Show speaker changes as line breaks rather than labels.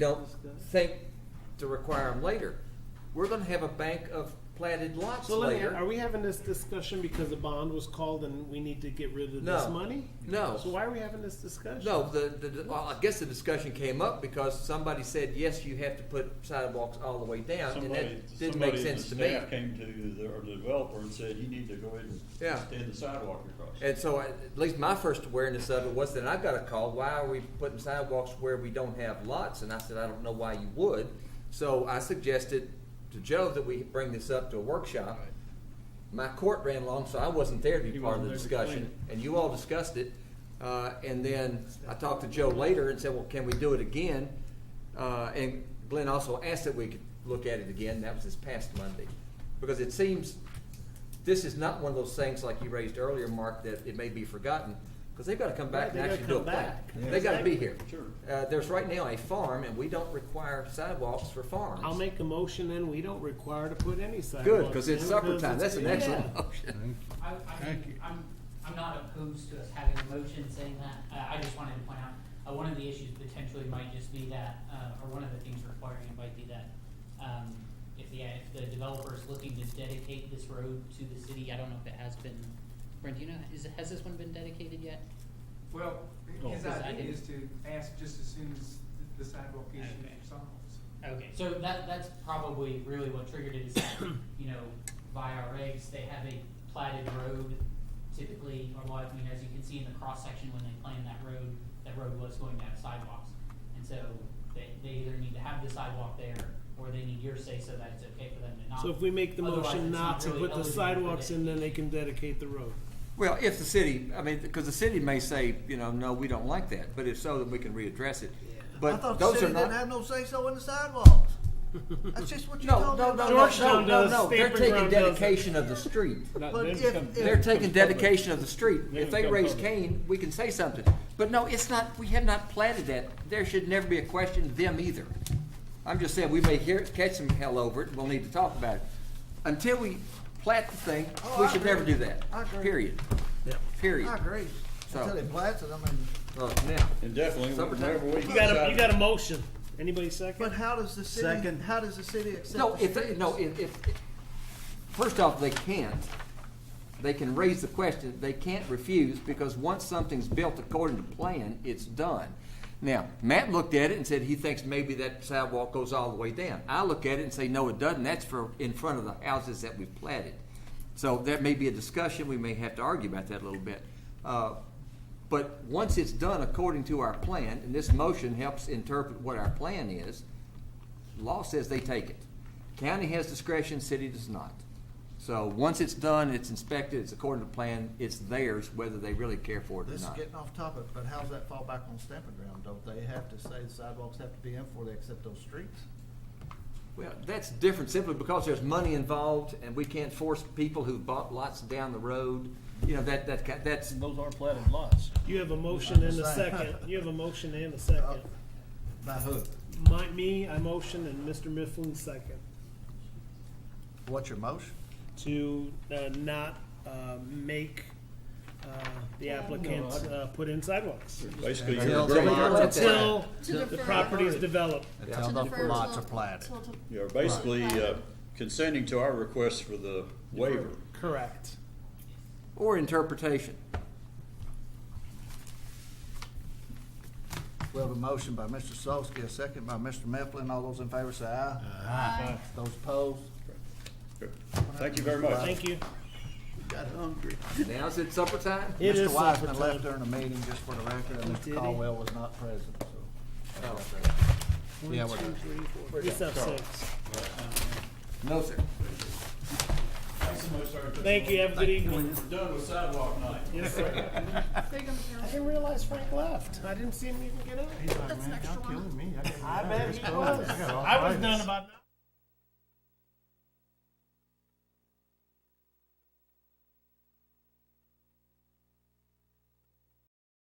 don't think to require them later. We're gonna have a bank of platted lots
So let me,
later.
are we having this discussion because the bond was called and we need to get rid of this
No.
money?
No.
So why are we having this discussion?
No, the, the, the- well, I guess the discussion came up because somebody said, yes, you have to put sidewalks all the way down, and that didn't make sense to me.
Somebody, somebody in the staff came to the, or the developer and said, you need to go ahead and
Yeah.
extend the sidewalk across.
And so, at at least my first awareness of it was that I got a call, why are we putting sidewalks where we don't have lots? And I said, I don't know why you would. So I suggested to Joe that we bring this up to a workshop. My court ran long, so I wasn't there to be
He
part of the
wasn't there to explain
discussion, and you all discussed it. Uh, and then I talked to Joe later and said, well, can we do it again? Uh, and Glenn also asked that we could look at it again, that was this past Monday. Because it seems, this is not one of those things like you raised earlier, Mark, that it may be forgotten, because they've gotta come back
Right,
and
they gotta
actually do a
come
plan.
back.
They gotta be
Exactly.
here.
Sure.
Uh, there's right now a farm, and we don't require sidewalks for farms.
I'll make a motion and we don't require to put any sidewalks.
Good, because it's
in
supper
because
time,
it's-
that's an excellent
Yeah.
motion.
I, I
Thank
mean,
you.
I'm, I'm not opposed to us having a motion saying that, uh, I just wanted to point out, uh, one of the issues potentially might just be that, uh, or one of the things requiring it might be that, um, if the, if the developer is looking to dedicate this road to the city, I don't know if it has been, Brent, do you know, is, has this one been dedicated yet?
Well, his
Oh, Because I
idea
didn't-
is to ask just as soon as the sidewalk issue
Okay.
is solved.
Okay, so that, that's probably really what triggered it is that, you know, by our regs, they have a platted road typically, or what, I mean, as you can see in the cross-section when they planned that road, that road was going to have sidewalks. And so they, they either need to have the sidewalk there or they need your say so that it's okay for them to not.
So if we make the
Otherwise,
motion
it's
not to
really
put the
eligible for
sidewalks
the-
in, then they can dedicate the road.
Well, if the city, I mean, because the city may say, you know, no, we don't like that, but if so, then we can readdress it.
I
But
thought the
those
city
are
didn't
not.
have no say-so in the sidewalks. That's just what you
No,
told me
no, no, no,
about.
no,
Georgetown
no,
does,
no, they're
Stampin'
taking
Ground does it.
dedication of the street.
Not-
But
then
if-
come-
if-
then
They're
come
taking
public.
dedication of the street.
Then
If they
come
raise
public.
Cain, we can say something. But no, it's not, we have not planted that. There should never be a question of them either. I'm just saying, we may hear, catch some hell over it, we'll need to talk about it. Until we plat the thing,
Oh,
we
I
should never do
agree.
that.
I agree.
Period. Period.
I agree.
So-
Until they blasted them and,
Uh, now,
And definitely,
Summertime.
whenever we.
You got a, you got a motion. Anybody
but
second?
how does the city,
Second.
how does the city accept?
No,
the
if, they-
streets?
no, if, if, first off, they can't. They can raise the question, they can't refuse, because once something's built according to plan, it's done. Now, Matt looked at it and said he thinks maybe that sidewalk goes all the way down. I look at it and say, no, it doesn't, that's for, in front of the houses that we've platted. So that may be a discussion, we may have to argue about that a little bit. Uh, But once it's done according to our plan, and this motion helps interpret what our plan is, law says they take it. County has discretion, city does not. So once it's done, it's inspected, it's according to plan, it's theirs, whether they really care for it or
This is
not.
getting off topic, but how's that fall back on stamping ground? Don't they have to say the sidewalks have to be in before they accept those streets?
Well, that's different simply because there's money involved and we can't force people who bought lots down the road. You know, that, that, ki- that's,
Those aren't platted lots.
You have a motion and a
Understand.
second. You have a motion and a second.
By who?
My, me, I motion and Mr. Mifflin second
What's your motion?
to, uh, not, uh, make, uh, the applicants, uh, put in sidewalks.
Basically,
Until
you're
the
agreeing,
lot-
Until
To
the
defer.
property is developed.
Until
To
the
defer
lots
till-
are platted.
till- till-
you're basically uh, consenting to our request for the waiver.
Correct.
or interpretation.
We have a motion by Mr. Solsky, a second by Mr. Mifflin. All those in favor say aye. Aye. Those opposed?
Thank you very much.
Thank you.
Got hungry.
Now's it supper time?
It
Mr.
is supper
Wiseman
time.
left during the meeting, just for the record, and
Did
Mr.
he?
Caldwell was not present, so. that's right
Oh.
there. Yeah, we're done.
It's up six.
No, sir.
Thanks so much, sir.
Thank you, have a good evening.
We're done with sidewalk night.
Yes, sir.
Big on the
I didn't realize Frank left. I didn't see him even get up.
That's an extra one.
I bet he was. I was done about.